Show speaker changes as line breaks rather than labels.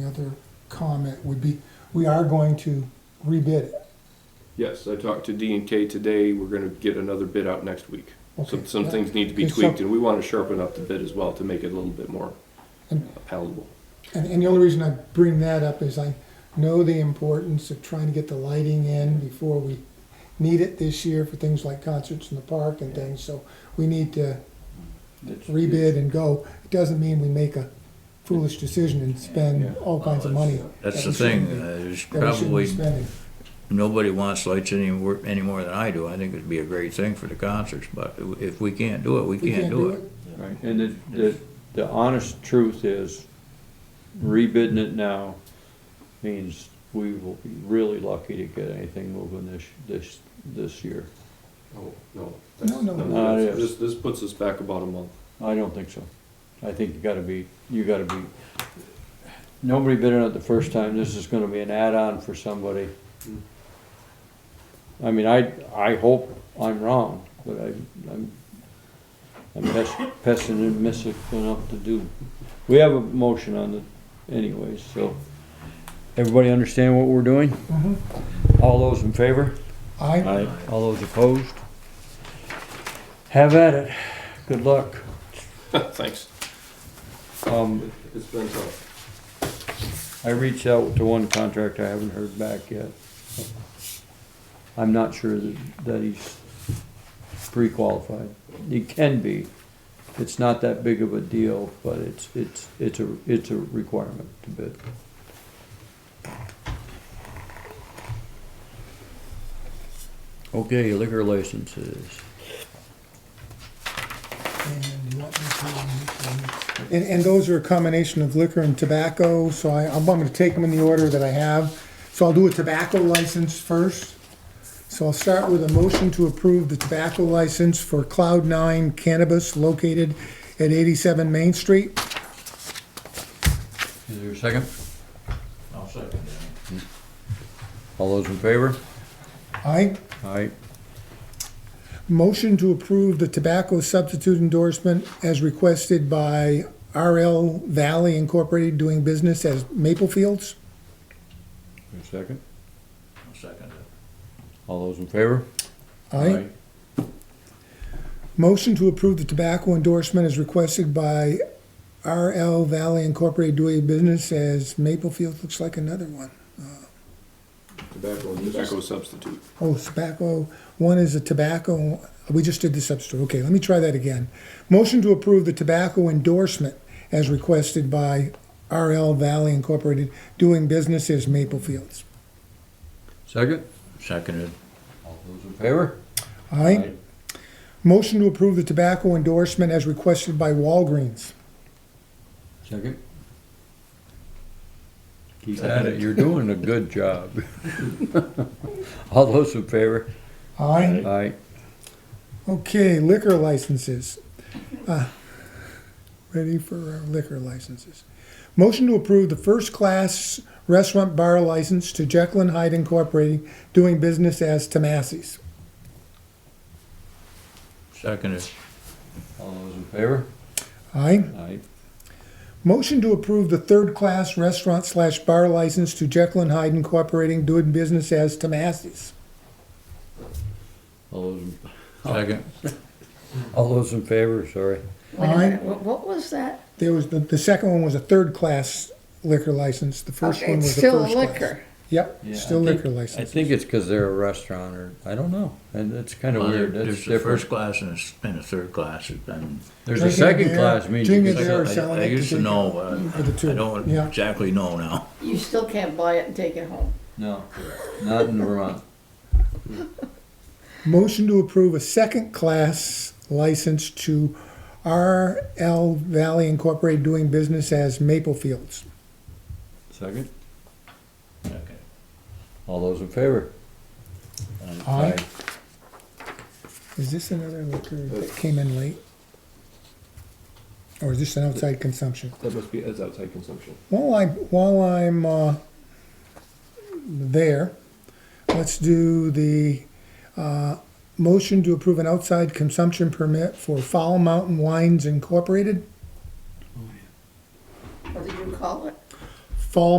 The other comment would be, we are going to rebid it.
Yes, I talked to D and K today. We're gonna get another bid out next week.
Okay.
Some, some things need to be
Okay, so-
tweaked, and we wanna sharpen up the bid as well to make it a little bit more
And-
palatable.
And, and the only reason I bring that up is I know the importance of trying to get the lighting in before we need it this year for things like concerts in the park and things, so we need to rebid and go. It doesn't mean we make a foolish decision and spend all kinds of money. that
That's the
we shouldn't
thing,
be-
uh,
That
there's
we shouldn't be
probably,
spending.
nobody wants lights any, wor- any more than I do. I think it'd be a great thing for the concerts, but if we can't do it, we
We
can't do it.
Right, and the, the, the honest truth is, rebidding it now means we will be really lucky to get anything moving this, this, this year.
Oh, no.
No, no,
no. Ah, yes.
This, this puts us back about a month.
I don't think so. I think you gotta be, you gotta be, nobody bid on it the first time, this is gonna be an add-on for somebody. I mean, I, I hope I'm wrong, but I, I'm, I'm pes- pessimistic enough to do. We have a motion on it anyways, so, everybody understand what we're doing?
Mhm.
All those in favor?
I,
All those opposed? Have at it, good luck.
Thanks.
Um,
It's been tough.
I reached out to one contractor, I haven't heard back yet. I'm not sure that, that he's pre-qualified. He can be. It's not that big of a deal, but it's, it's, it's a, it's a requirement to bid. Okay, liquor licenses.
And you want me to- And, and those are a combination of liquor and tobacco, so I, I'm going to take them in the order that I have. So I'll do a tobacco license first. So I'll start with a motion to approve the tobacco license for Cloud Nine Cannabis located at eighty-seven Main Street.
Is there a second?
I'll second
All those in favor?
Aye.
Aye.
Motion to approve the tobacco substitute endorsement as requested by RL Valley Incorporated doing business as Maple Fields.
A second?
I'll second it.
All those in favor?
Aye. Motion to approve the tobacco endorsement is requested by RL Valley Incorporated doing business as Maple Fields looks like another one.
Tobacco, tobacco substitute.
Oh, tobacco, one is a tobacco, we just did the substitute, okay, let me try that again. Motion to approve the tobacco endorsement as requested by RL Valley Incorporated doing business as Maple Fields.
Second?
Seconded.
All those in favor?
Aye. Motion to approve the tobacco endorsement as requested by Walgreens.
Second. Keep at it, you're doing a good job. All those in favor?
Aye.
Aye.
Okay, liquor licenses. Uh, Ready for our liquor licenses. Motion to approve the first-class restaurant bar license to Jekyll and Hyde Incorporated, doing business as Tomasi's.
Seconded.
All those in favor?
Aye.
Aye.
Motion to approve the third-class restaurant slash bar license to Jekyll and Hyde Incorporated, doing business as Tomasi's.
All those, in-
Second.
all those in favor, sorry.
Wait a
Aye.
minute, what, what was that?
There was, the, the second one was a third-class liquor license, the first
Okay,
one
it's
was a
still
first-class.
liquor.
Yep,
Yeah, I
still
think-
liquor license.
I think it's because they're a restaurant or, I don't know, and it's kind of
Well, there-
weird, that's
There's a first
different.
class and a- and a third class, and
There's
Drinking
a second
beer-
class means you
drinking
can
beer
sell-
or selling
I
it
used to
drink-
know, but
For the two,
I don't
yeah.
exactly know now.
You still can't buy it and take it home.
No, not in Vermont.
Motion to approve a second-class license to RL Valley Incorporated doing business as Maple Fields.
Second?
Second.
All those in favor?
Aye. Is this another liquor that came in late? Or is this an outside consumption?
That must be, that's outside consumption.
While I, while I'm, uh, there, let's do the, uh, motion to approve an outside consumption permit for Foul Mountain Wines Incorporated.
What did you call it?